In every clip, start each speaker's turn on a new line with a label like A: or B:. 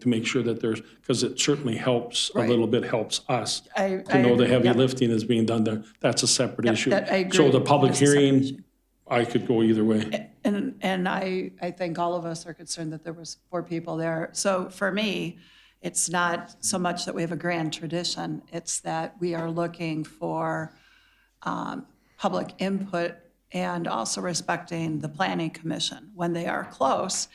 A: to make sure that there's, because it certainly helps, a
B: Right.
A: little bit helps us
B: I-
A: to know
B: I-
A: the heavy
B: yep.
A: lifting is being done there. That's a separate issue.
B: that- I
A: So
B: agree.
A: the public
B: That's a separate
A: hearing,
B: issue. Eh.
A: I could go either way.
B: And, and I, I think all of us are concerned that there was four people there. So for me, it's not so much that we have a grand tradition, it's that we are looking for um, public input and also respecting the planning commission. When they are close,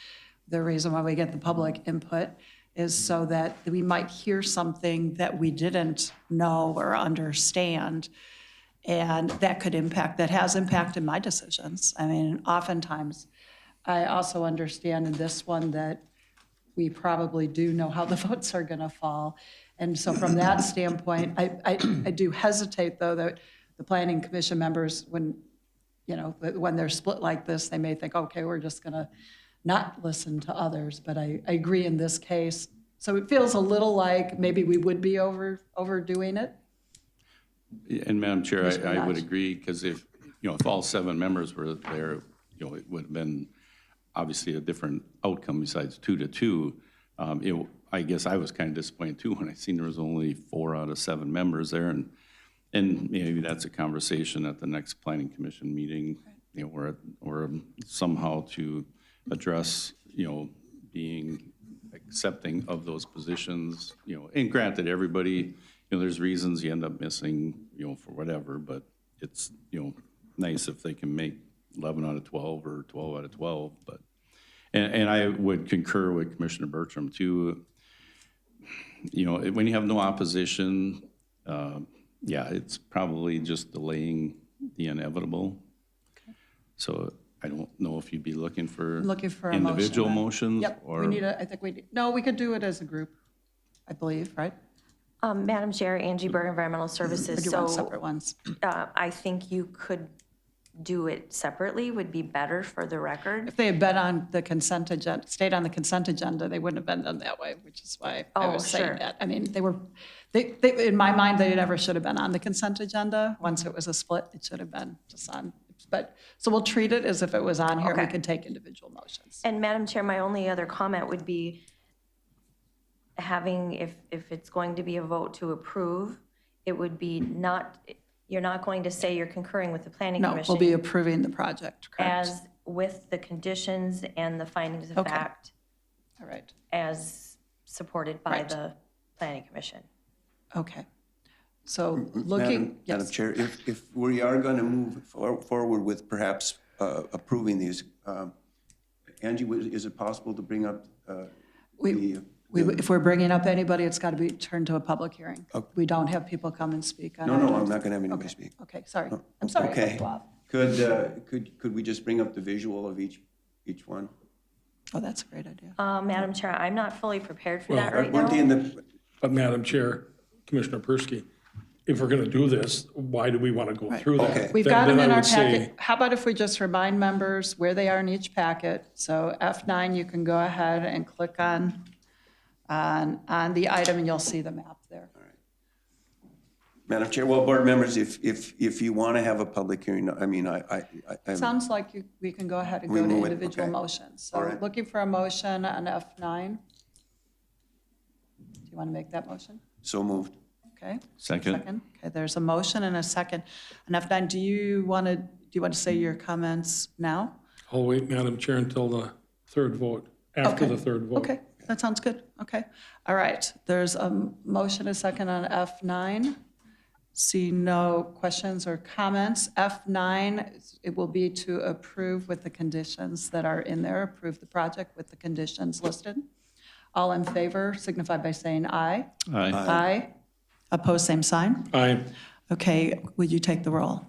B: the reason why we get the public input is so that we might hear something that we didn't know or understand. And that could impact, that has impacted my decisions. I mean, oftentimes, I also understand in this one that we probably do know how the votes are going to fall. And so from that standpoint, I, I, I do hesitate, though, that the planning commission members, when, you know, that when they're split like this, they may think, okay, we're just going to not listen to others. But I, I agree in this case. So it feels a little like maybe we would be over, overdoing it.
C: And Madam Chair, I, I would
B: Minaj.
C: agree, because if, you know, if all seven members were there, you know, it would have been obviously a different outcome besides two to two. Um, it, I guess I was kind of disappointed too, when I seen there was only four out of seven members there, and, and maybe that's a conversation at the next planning commission meeting, you know, or, or somehow to address, you know, being accepting of those positions, you know, and granted, everybody, you know, there's reasons you end up missing, you know, for whatever, but it's, you know, nice if they can make 11 out of 12 or 12 out of 12, but, and, and I would concur with Commissioner Bertram too. You know, when you have no opposition, uh, yeah, it's probably just delaying the inevitable. So I don't know if you'd be looking for
B: Looking for a motion.
C: individual
B: then.
C: motions
B: Yep,
C: or.
B: we need a, I think we, need- no, we could do it as a group, I believe, right?
D: Um, Madam Chair, Angie Berg, Environmental
B: Or do
D: Services.
B: you want
D: So
B: separate ones?
D: uh, I think you could do it separately, would be better for the record.
B: If they had been on the consent agenda, stayed on the consent agenda, they wouldn't have been done that way, which is why I
D: Oh,
B: was saying
D: sure.
B: that. I mean, they were, they, they, in my mind, they never should have been on the consent agenda. Once it was a split, it should have been just on, but, so we'll treat it as if it was on here. We
D: Okay.
B: could take individual motions.
D: And Madam Chair, my only other comment would be having, if, if it's going to be a vote to approve, it would be not, you're not going to say you're concurring with the planning
B: No,
D: commission.
B: we'll be approving the project, correct?
D: As with the conditions and the findings of
B: Okay.
D: fact
B: All right,
D: as supported by
B: Right.
D: the planning commission.
B: okay. So
E: Madam
B: looking,
E: Madam
B: yes,
E: Chair, if, if we are going to move for- forward with perhaps uh, approving these, um, Angie, was- is it possible to bring up uh,
B: we,
E: the?
B: we, if we're bringing up anybody, it's got to be turned to a public hearing. We don't have people come and speak on it.
E: Oh. No, no, I'm not going to have anybody speak. Oh,
B: Okay, sorry. I'm sorry. I cut
E: Okay.
B: you off.
E: Could, uh, could, could we just bring up the visual of each, each one?
B: Oh, that's a great idea.
A: Um,
D: Uh, Madam Chair, I'm not fully prepared for that right now.
E: Weren't they in the,
A: But Madam Chair, Commissioner Persky, if we're going to do this, why do we want to go through that?
E: Okay.
B: We've
A: Then-
B: got them
A: then I
B: in our
A: would say-
B: packet. How about if we just remind members where they are in each packet? So F9, you can go ahead and click on, on, on the item, and you'll see the map there.
E: Madam Chair, well, board members, if, if, if you want to have a public hearing, I mean, I, I, I- I,
B: Sounds like you- we can go ahead and
E: We
B: go to
E: move it,
B: individual
E: okay.
B: motions.
E: All
B: So
E: right.
B: looking for a motion on F9. Do you want to make that motion?
E: so moved.
B: Okay.
C: Second.
B: Second. Okay, there's a motion and a second. And F9, do you want to, do you want to say your comments now?
A: I'll wait, Madam Chair, until the third vote, after
B: Okay.
A: the third vote.
B: Okay, that sounds good. Okay. All right, there's a motion, a second on F9. See no questions or comments. F9, it will be to approve with the conditions that are in there, approve the project with the conditions listed. All in favor signify by saying aye.
C: Aye.
B: Aye. Opposed, same sign.
A: Aye.
B: Okay, would you take the roll?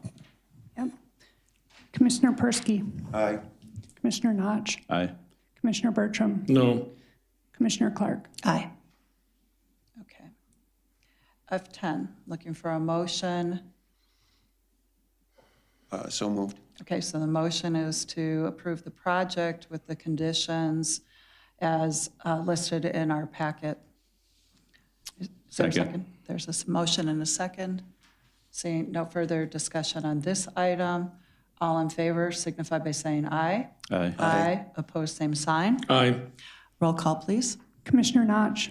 F: Commissioner Persky,
E: Aye.
F: Commissioner Notch,
C: Aye.
F: Commissioner Bertram,
A: No.
F: Commissioner Clark.
B: Aye. Okay. F10, looking for a motion.
E: Uh, So moved.
B: Okay, so the motion is to approve the project with the conditions as uh, listed in our packet. Is there a
C: Second.
B: There's a s- motion and a second. Seeing no further discussion on this item, all in favor signify by saying aye.
C: Aye.
B: Aye. Opposed, same sign.
A: Aye.
B: Roll call, please.
F: Commissioner Notch.